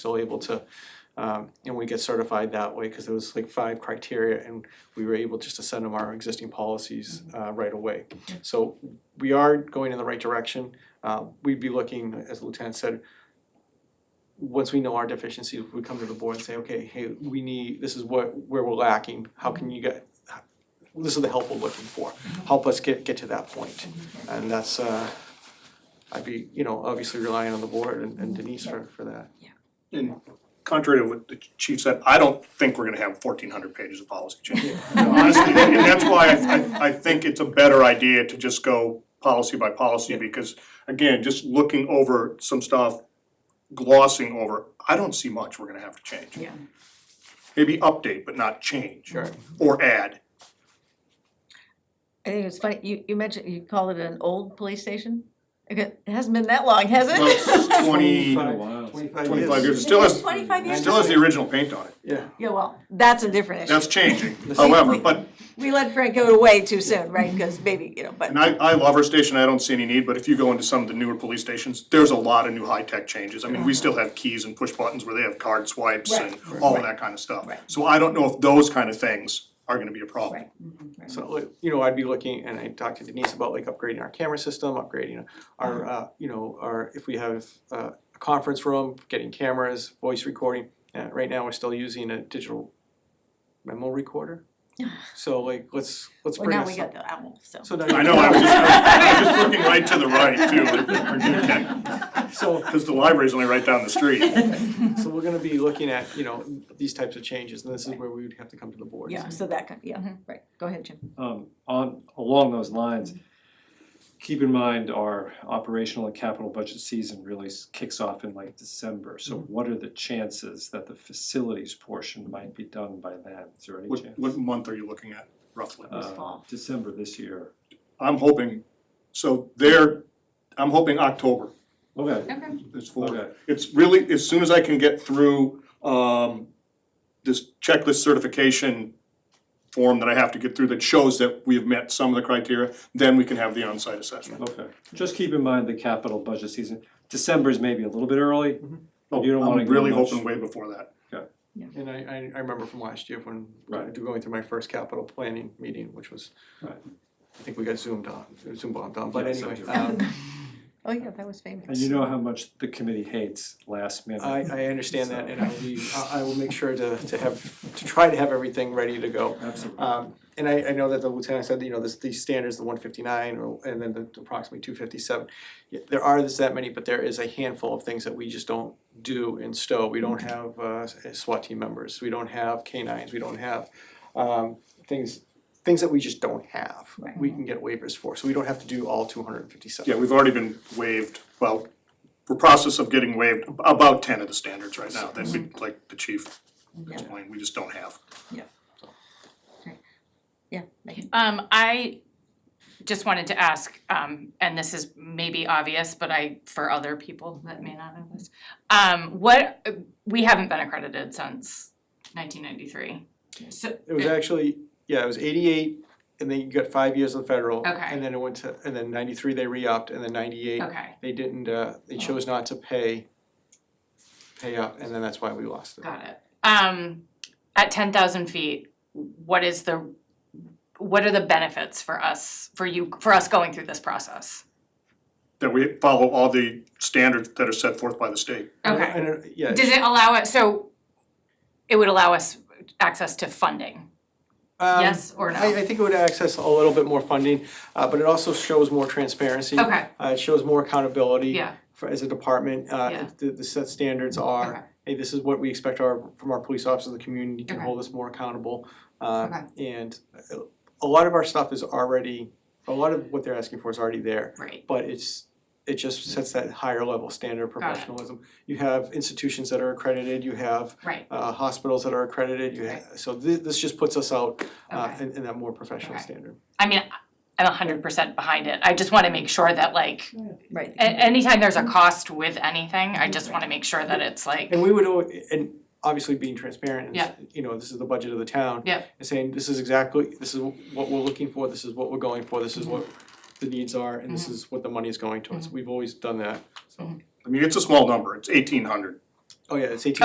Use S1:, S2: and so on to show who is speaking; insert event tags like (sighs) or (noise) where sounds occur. S1: still able to, um, and we get certified that way, because there was like five criteria, and we were able just to send them our existing policies, uh, right away. So we are going in the right direction, uh, we'd be looking, as the Lieutenant said, once we know our deficiencies, we come to the board and say, okay, hey, we need, this is what, where we're lacking, how can you get, this is the help we're looking for, help us get, get to that point. And that's, uh, I'd be, you know, obviously relying on the board and and Denise for, for that.
S2: And contrary to what the chief said, I don't think we're gonna have fourteen hundred pages of policy change.
S1: Yeah.
S2: Honestly, and that's why I, I, I think it's a better idea to just go policy by policy, because again, just looking over some stuff, glossing over, I don't see much we're gonna have to change.
S3: Yeah.
S2: Maybe update, but not change.
S1: Sure.
S2: Or add.
S3: I think it's funny, you, you mentioned, you call it an old police station? Okay, It hasn't been that long, has
S2: Well,
S3: (laughs)
S2: it's
S3: it?
S2: twenty,
S1: Twenty-five
S2: twenty-five years, it still has,
S3: Twenty-five years?
S2: still has the original paint on it.
S1: Yeah,
S3: Yeah, well, that's a different issue.
S2: That's changing, however, but,
S3: We let Frank go away too soon, right, because maybe, you know, but,
S2: and I, I love our station, I don't see any need, but if you go into some of the newer police stations, there's a lot of new high-tech changes. I mean, we still have keys and push buttons where they have card swipes and
S3: Right.
S2: all of that kind of stuff.
S3: Right.
S2: So I don't know if those kind of things are gonna be a problem.
S3: right. mhm, right.
S1: so, like, you know, I'd be looking, and I talked to Denise about like upgrading our camera system, upgrading
S2: Mm-hmm.
S1: our, uh, you know, our, if we have uh, a conference room, getting cameras, voice recording. Uh, right now, we're still using a digital memo
S3: (sighs)
S1: recorder. So like, let's, let's
S3: Well,
S1: bring
S3: now
S1: us
S3: we got the owl, so.
S1: So now.
S2: I know, I was just, I
S3: (laughs)
S2: was just looking right to the right too,
S1: So,
S2: because the library's only right down
S3: (laughs)
S2: the street.
S1: so we're gonna be looking at, you know, these types of changes, and this is where we would have to come to the board.
S3: Yeah, so that, kind. yeah, right, go ahead, Jim.
S4: um, on, along those lines, keep in mind our operational and capital budget season really s- kicks off in like December. So what are the chances that the facilities portion might be done by then? Is there any
S2: What,
S4: chance?
S2: what month are you looking at roughly?
S4: Uh,
S3: fall?
S4: December this year.
S2: I'm hoping, so there, I'm hoping October
S4: Okay,
S3: Okay.
S2: is for,
S4: Okay.
S2: it's really, as soon as I can get through, um, this checklist certification form that I have to get through that shows that we have met some of the criteria, then we can have the on-site assessment.
S4: okay. Just keep in mind the capital budget season. December is maybe a little bit early. But you don't wanna
S2: I'm
S4: go
S2: really
S4: much-
S2: hoping way before that.
S1: And I, I, I remember from last year when,
S4: Right.
S1: going through my first capital planning meeting, which was,
S4: Right.
S1: I think we got zoomed on, Zoom bombed on, but
S4: Yeah, so
S1: anyway,
S4: do
S1: um,
S3: Oh, yeah, that was famous.
S4: And you know how much the committee hates last minute.
S1: I, I understand that and I'll be, I, I will make sure to, to have, to try to have everything ready to go.
S4: Absolutely.
S1: Um, and I, I know that the lieutenant said, that, you know, this, these standards, the one fifty-nine or, and then the approximately two fifty-seven. There are, there's that many, but there is a handful of things that we just don't do in Stowe. We don't have, uh, SWAT team members, we don't have canines, we don't have, um, things, things that we just don't have.
S3: Right.
S1: We can get waivers for, so we don't have to do all two hundred and fifty-seven.
S2: Yeah, we've already been waived, well, we're process of getting waived about ten of the standards right now that we, like the chief explained, we just don't have.
S3: Yeah, Megan.
S5: Um, I just wanted to ask, um, and this is maybe obvious, but I, for other people that may not know this. Um, what, we haven't been accredited since nineteen ninety-three. So,
S1: It was actually, yeah, it was eighty-eight, and then you got five years of federal.
S5: Okay.
S1: And then it went to, and then ninety-three, they re-upped, and then ninety-eight,
S5: okay,
S1: they didn't, uh, they chose not to pay, pay up, and then that's why we lost it.
S5: got it. Um, at ten thousand feet, what is the, what are the benefits for us, for you, for us going through this process?
S2: That we follow all the standards that are set forth by the state.
S5: Okay.
S1: And, uh, yeah,
S5: Does it allow it, so it would allow us access to funding,
S1: um,
S5: yes or no?
S1: I, I think it would access a little bit more funding, uh, but it also shows more transparency.
S5: Okay,
S1: Uh, it shows more accountability.
S5: yeah,
S1: For, as a department, uh,
S5: Yeah.
S1: the, the set standards are,
S5: okay,
S1: hey, this is what we expect our, from our police officers, the community can
S5: Okay.
S1: hold us more accountable. Uh, and uh, a lot of our stuff is already, a lot of what they're asking for is already there,
S5: right,
S1: but it's, it just sets that higher level standard of
S5: Got it.
S1: professionalism. You have institutions that are accredited, you have
S5: right,
S1: uh hospitals that are accredited, you have, so thi- this just puts us out uh
S5: okay.
S1: in in that more professional
S5: Okay.
S1: standard.
S5: I mean, I'm a hundred percent behind it, I just wanna make sure that like,
S3: right.
S5: a- anytime there's a cost with anything, I just wanna make sure that it's like,
S1: And we would, al- and obviously being transparent and,
S5: Yeah.
S1: you know, this is the budget of the town.
S5: Yeah.
S1: And saying, this is exactly, this is what we're looking for, this is what we're going for, this is
S5: Mm-hmm.
S1: what the needs are, and this is what the money is going towards. We've always done that, so.
S2: I mean, it's a small number, it's eighteen hundred
S1: Oh, yeah, it's eighteen